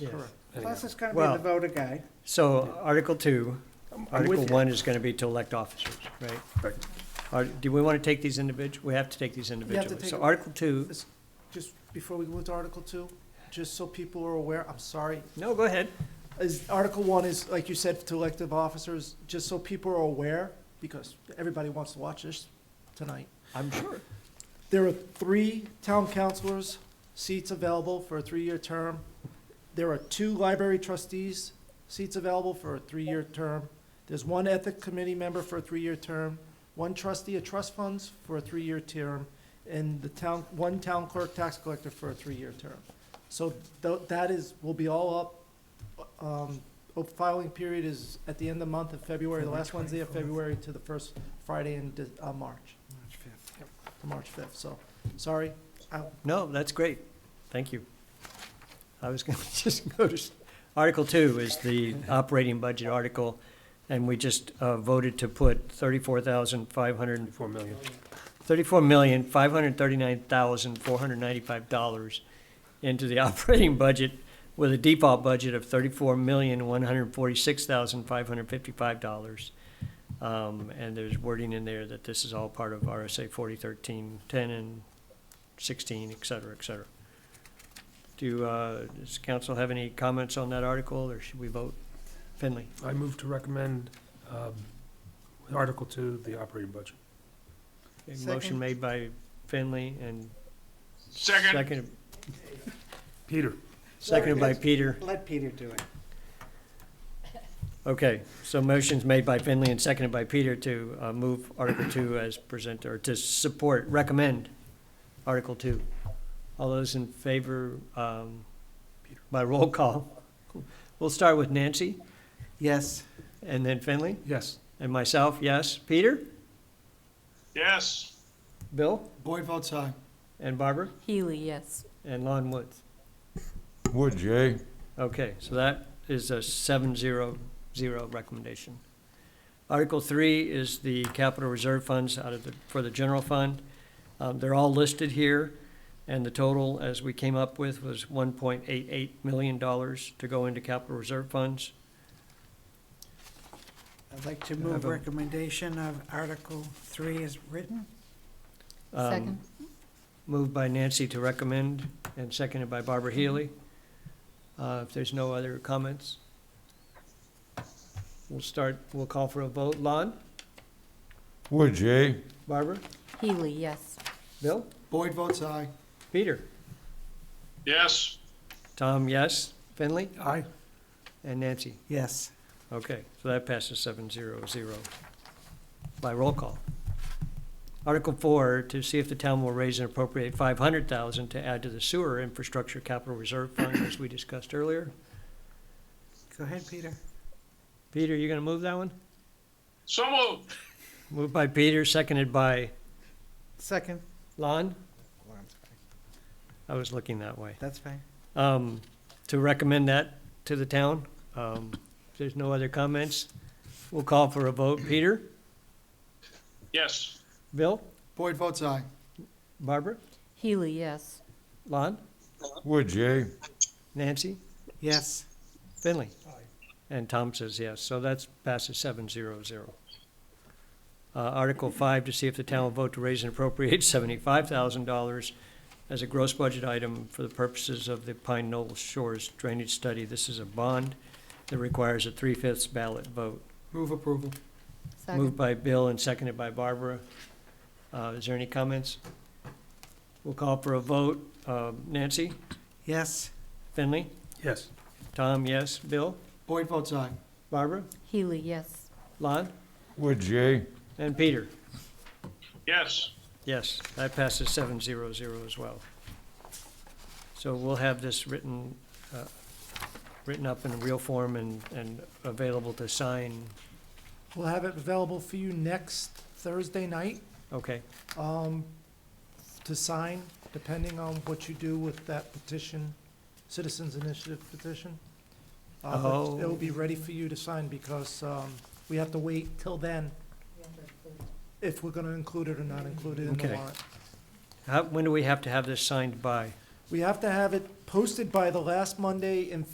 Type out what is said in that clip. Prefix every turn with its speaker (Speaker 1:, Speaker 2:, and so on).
Speaker 1: Yes.
Speaker 2: Correct.
Speaker 1: Plus, it's gonna
Speaker 3: Well-
Speaker 1: be the voter guy.
Speaker 3: So Article Two,
Speaker 2: I'm
Speaker 3: Article
Speaker 2: with you.
Speaker 3: One is gonna be to elect officers, right?
Speaker 2: Right.
Speaker 3: Are, do we wanna take these individual, we have to take these
Speaker 2: to
Speaker 3: individually.
Speaker 2: take
Speaker 3: So
Speaker 2: them.
Speaker 3: Article Two,
Speaker 2: Just before we go into Article Two, just so people are aware, I'm sorry,
Speaker 3: no, go ahead.
Speaker 2: is, Article One is, like you said, to elective officers, just so people are aware, because everybody wants to watch this tonight.
Speaker 3: I'm sure.
Speaker 2: There are three town councilors seats available for a three-year term. There are two library trustees seats available for a three-year term. There's one ethic committee member for a three-year term, one trustee of trust funds for a three-year term, and the town, one town clerk tax collector for a three-year term. So tho- that is, will be all up. Um, oh, Filing period is at the end of the month of February, the last Wednesday of February to the first Friday in De- uh, March to March fifth, so, sorry.
Speaker 3: No, that's great. Thank you. I was gonna just go to, s- Article Two is the operating budget article, and we just uh, voted to put thirty-four thousand five hundred and
Speaker 4: Four million.
Speaker 3: thirty-four million, five hundred thirty-nine thousand, four hundred ninety-five dollars into the operating budget with a default budget of thirty-four million, one hundred forty-six thousand, five hundred fifty-five dollars. Um, and there's wording in there that this is all part of RSA forty thirteen, ten and sixteen, et cetera, et cetera. Do, uh, does council have any comments on that article, or should we vote? Finley?
Speaker 4: I move to recommend um, Article Two, the operating budget.
Speaker 3: A
Speaker 1: Second.
Speaker 3: motion made by Finley and
Speaker 5: Second,
Speaker 3: seconded,
Speaker 4: Peter,
Speaker 3: seconded by Peter.
Speaker 1: Let Peter do it.
Speaker 3: Okay, so motion's made by Finley and seconded by Peter to uh, move Article Two as presented, or to support, recommend Article Two. All those in favor, um, by roll call. We'll start with Nancy,
Speaker 1: Yes.
Speaker 3: and then Finley,
Speaker 4: yes.
Speaker 3: and myself, yes. Peter?
Speaker 5: yes.
Speaker 3: Bill?
Speaker 2: Boyd votes aye.
Speaker 3: And Barbara?
Speaker 6: Healy, yes.
Speaker 3: And Lon Woods.
Speaker 7: Would Jay?
Speaker 3: Okay, so that is a seven zero zero recommendation. Article three is the capital reserve funds out of the, for the general fund. Um, they're all listed here, and the total, as we came up with, was one point eight eight million dollars to go into capital reserve funds.
Speaker 1: I'd like to
Speaker 3: Can I
Speaker 1: move
Speaker 3: have a-
Speaker 1: recommendation of Article Three is written.
Speaker 3: Um,
Speaker 6: Second.
Speaker 3: Moved by Nancy to recommend, and seconded by Barbara Healy. Uh, if there's no other comments, we'll start, we'll call for a vote. Lon,
Speaker 7: Would Jay?
Speaker 3: Barbara,
Speaker 6: Healy, yes.
Speaker 3: Bill?
Speaker 2: Boyd votes aye.
Speaker 3: Peter?
Speaker 5: Yes.
Speaker 3: Tom, yes. Finley?
Speaker 4: Aye.
Speaker 3: And Nancy?
Speaker 1: Yes.
Speaker 3: Okay, so that passes seven zero zero by roll call. Article four, to see if the town will raise and appropriate five hundred thousand to add to the sewer infrastructure capital reserve fund, as we discussed earlier.
Speaker 1: Go ahead, Peter.
Speaker 3: Peter, you gonna move that one?
Speaker 5: So moved.
Speaker 3: Moved by Peter, seconded by
Speaker 1: Second.
Speaker 3: Lon? I was looking that way.
Speaker 1: That's fine.
Speaker 3: um, to recommend that to the town. Um, if there's no other comments, we'll call for a vote. Peter?
Speaker 5: Yes.
Speaker 3: Bill?
Speaker 2: Boyd votes aye.
Speaker 3: Barbara?
Speaker 6: Healy, yes.
Speaker 3: Lon?
Speaker 7: Would Jay?
Speaker 3: Nancy?
Speaker 1: Yes.
Speaker 3: Finley? And Tom says yes, so that's passes seven zero zero. Uh, Article five, to see if the town will vote to raise and appropriate seventy-five thousand dollars as a gross budget item for the purposes of the Pine Knoll Shores Drainage Study. This is a bond that requires a three-fifths ballot vote.
Speaker 2: Move approval.
Speaker 6: Second.
Speaker 3: Moved by Bill and seconded by Barbara. Uh, Is there any comments? We'll call for a vote. Um, Nancy?
Speaker 1: Yes.
Speaker 3: Finley?
Speaker 4: Yes.
Speaker 3: Tom, yes. Bill?
Speaker 2: Boyd votes aye.
Speaker 3: Barbara?
Speaker 6: Healy, yes.
Speaker 3: Lon?
Speaker 7: Would Jay?
Speaker 3: And Peter?
Speaker 5: Yes.
Speaker 3: Yes, that passes seven zero zero as well. So we'll have this written, uh, written up in real form and, and available to sign.
Speaker 2: We'll have it available for you next Thursday night,
Speaker 3: Okay,
Speaker 2: um, to sign, depending on what you do with that petition, Citizens Initiative petition. Uh, but
Speaker 3: Oh.
Speaker 2: It'll be ready for you to sign because, um, we have to wait till then if we're gonna include it or not include it in the
Speaker 3: Okay.
Speaker 2: warrant.
Speaker 3: how, when do we have to have this signed by?
Speaker 2: We have to have it posted by the last Monday in